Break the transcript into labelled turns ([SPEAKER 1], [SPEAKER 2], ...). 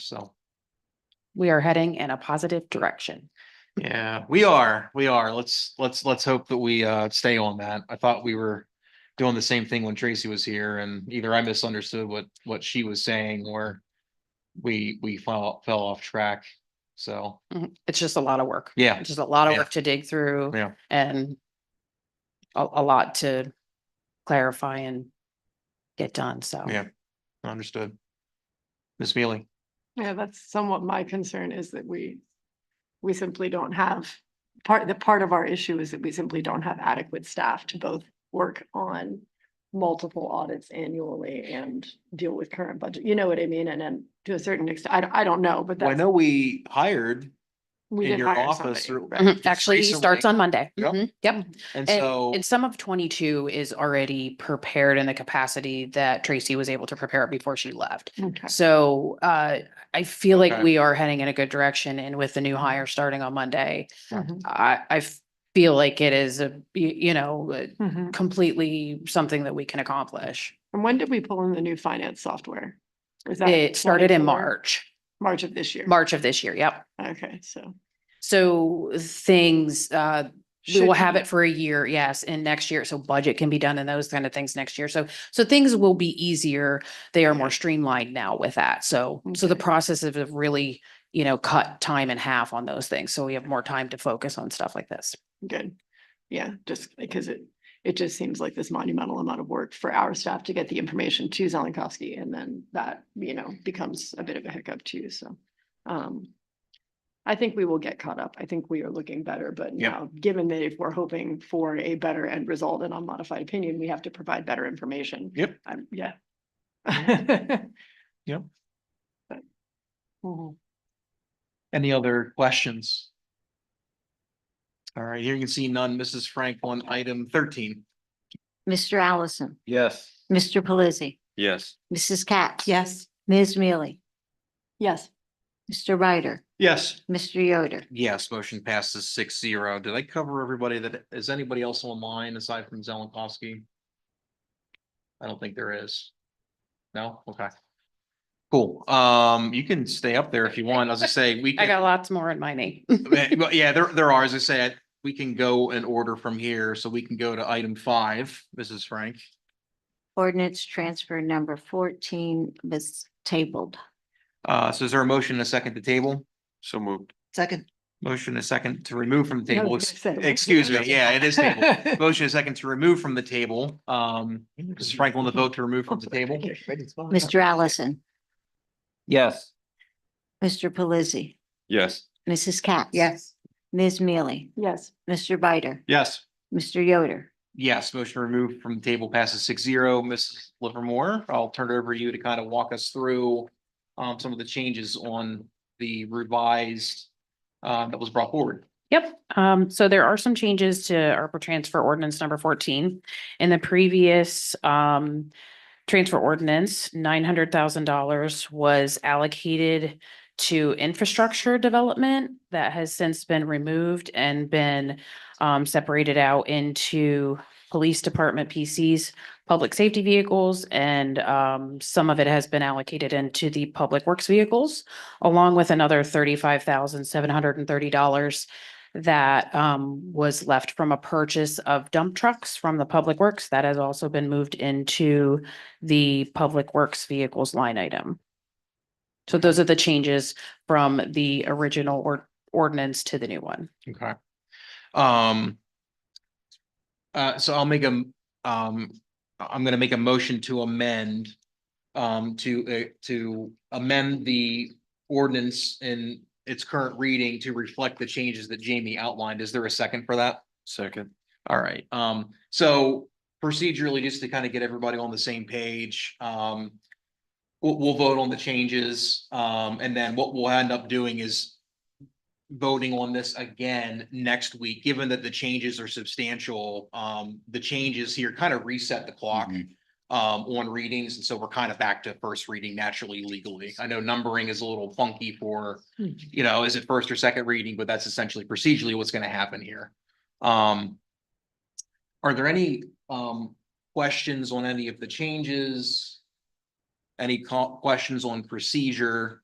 [SPEAKER 1] So,
[SPEAKER 2] We are heading in a positive direction.
[SPEAKER 1] yeah, we are, we are. Let's, let's, let's hope that we uh stay on that. I thought we were doing the same thing when Tracy was here and either I misunderstood what, what she was saying or we, we fell, fell off track. So,
[SPEAKER 2] Mhm. It's just a lot of work.
[SPEAKER 1] yeah,
[SPEAKER 2] It's just a lot of
[SPEAKER 1] Yeah.
[SPEAKER 2] work to dig through.
[SPEAKER 1] Yeah.
[SPEAKER 2] And a, a lot to clarify and get done. So.
[SPEAKER 1] Yeah. understood. Ms. Mealy,
[SPEAKER 3] Yeah, that's somewhat my concern is that we, we simply don't have, part, the part of our issue is that we simply don't have adequate staff to both work on multiple audits annually and deal with current budget, you know what I mean? And then to a certain extent, I, don't- I don't know, but
[SPEAKER 1] Well, I
[SPEAKER 3] that's.
[SPEAKER 1] know we hired
[SPEAKER 3] we
[SPEAKER 1] in
[SPEAKER 3] did
[SPEAKER 1] your
[SPEAKER 3] hire
[SPEAKER 1] office. through-
[SPEAKER 3] somebody.
[SPEAKER 2] Mhm.
[SPEAKER 1] just
[SPEAKER 2] Actually, he starts
[SPEAKER 1] recently,
[SPEAKER 2] on Monday.
[SPEAKER 1] Yep.
[SPEAKER 2] Mhm. Yep.
[SPEAKER 1] And
[SPEAKER 2] And-
[SPEAKER 1] so,
[SPEAKER 2] And some of twenty-two is already prepared in the capacity that Tracy was able to prepare it before she left.
[SPEAKER 3] Okay.
[SPEAKER 2] So uh, I feel like
[SPEAKER 1] Okay.
[SPEAKER 2] we are heading in a good direction and with the new hire starting on Monday,
[SPEAKER 3] Mhm.
[SPEAKER 2] I, I feel like it is a, you, you know, uh,
[SPEAKER 3] Mhm.
[SPEAKER 2] completely something that we can accomplish.
[SPEAKER 3] And when did we pull in the new finance software? Was that
[SPEAKER 2] It started in
[SPEAKER 3] 24?
[SPEAKER 2] March,
[SPEAKER 3] March of this year.
[SPEAKER 2] March of this year. Yep.
[SPEAKER 3] Okay, so.
[SPEAKER 2] So things, uh, we
[SPEAKER 3] should
[SPEAKER 2] will have
[SPEAKER 3] be-
[SPEAKER 2] it for a year, yes, and next year, so budget can be done and those kind of things next year. So, so things will be easier. They are more
[SPEAKER 3] Okay.
[SPEAKER 2] streamlined now with that. So, so the
[SPEAKER 3] Okay.
[SPEAKER 2] processes have really, you know, cut time in half on those things. So we have more time to focus on stuff like this.
[SPEAKER 3] Good. Yeah, just because it, it just seems like this monumental amount of work for our staff to get the information to Zelenkovsky and then that, you know, becomes a bit of a hiccup too, so. Um, I think we will get caught up. I think we are looking better, but
[SPEAKER 1] Yeah.
[SPEAKER 3] now, given that if we're hoping for a better end result and unmodified opinion, we have to provide better information.
[SPEAKER 1] Yep.
[SPEAKER 3] Um, yeah.
[SPEAKER 1] Yep.
[SPEAKER 3] But- Mhm.
[SPEAKER 1] Any other questions? All right, here you can see none. Mrs. Frank on item thirteen.
[SPEAKER 4] Mr. Allison,
[SPEAKER 5] Yes.
[SPEAKER 4] Mr. Pelisi,
[SPEAKER 5] Yes.
[SPEAKER 4] Mrs. Katz. Yes. Ms. Mealy,
[SPEAKER 3] Yes.
[SPEAKER 4] Mr. Ryder,
[SPEAKER 1] Yes.
[SPEAKER 4] Mr. Yoder.
[SPEAKER 1] Yes, motion passes six zero. Did I cover everybody that, is anybody else online aside from Zelenkovsky? I don't think there is. No? Okay. Cool. Um, you can stay up there if you want. As I say, we.
[SPEAKER 2] I
[SPEAKER 1] can.
[SPEAKER 2] got lots more in my name.
[SPEAKER 1] Yeah, well, yeah, there, there are, as I said, we can go in order from here, so we can go to item five, Mrs. Frank.
[SPEAKER 4] Ordinance transfer number fourteen was tabled.
[SPEAKER 1] Uh, so is there a motion and a second to table?
[SPEAKER 5] So moved.
[SPEAKER 4] Second.
[SPEAKER 1] Motion and a second to remove from the
[SPEAKER 3] No,
[SPEAKER 1] table.
[SPEAKER 3] you
[SPEAKER 1] Ex-
[SPEAKER 3] said it.
[SPEAKER 1] Excuse me, yeah, it is table. Motion and a second to remove from the table. Um, Mrs. Frank on the vote to remove from the table?
[SPEAKER 4] Mr. Allison,
[SPEAKER 5] Yes.
[SPEAKER 4] Mr. Pelisi,
[SPEAKER 5] Yes.
[SPEAKER 4] Mrs. Katz. Yes. Ms. Mealy,
[SPEAKER 3] Yes,
[SPEAKER 4] Mr. Ryder,
[SPEAKER 1] Yes.
[SPEAKER 4] Mr. Yoder.
[SPEAKER 1] Yes, motion removed from the table passes six zero. Mrs. Livermore, I'll turn it over to you to kind of walk us through um, some of the changes on the revised uh, that was brought forward.
[SPEAKER 2] Yep, um, so there are some changes to ARPA transfer ordinance number fourteen. In the previous, um, transfer ordinance, nine hundred thousand dollars was allocated to infrastructure development that has since been removed and been, um, separated out into police department PCs, public safety vehicles, and, um, some of it has been allocated into the public works vehicles, along with another thirty-five thousand, seven hundred and thirty dollars that um was left from a purchase of dump trucks from the Public Works. That has also been moved into the Public Works Vehicles line item. So those are the changes from the original or ordinance to the new one.
[SPEAKER 1] Okay. Um. Uh, so I'll make a, m- um, I- I'm gonna make a motion to amend. Um, to, uh, to amend the ordinance in its current reading to reflect the changes that Jamie outlined. Is there a second for that?
[SPEAKER 5] Second.
[SPEAKER 1] All right, um, so procedurally, just to kind of get everybody on the same page, um. We'll, we'll vote on the changes, um, and then what we'll end up doing is. Voting on this again next week, given that the changes are substantial, um, the changes here kind of reset the clock.
[SPEAKER 5] Mhm.
[SPEAKER 1] Um, on readings, and so we're kind of back to first reading naturally legally. I know numbering is a little funky for. You know, is it first or second reading, but that's essentially procedurally what's gonna happen here. Um. Are there any um questions on any of the changes? Any co- questions on procedure?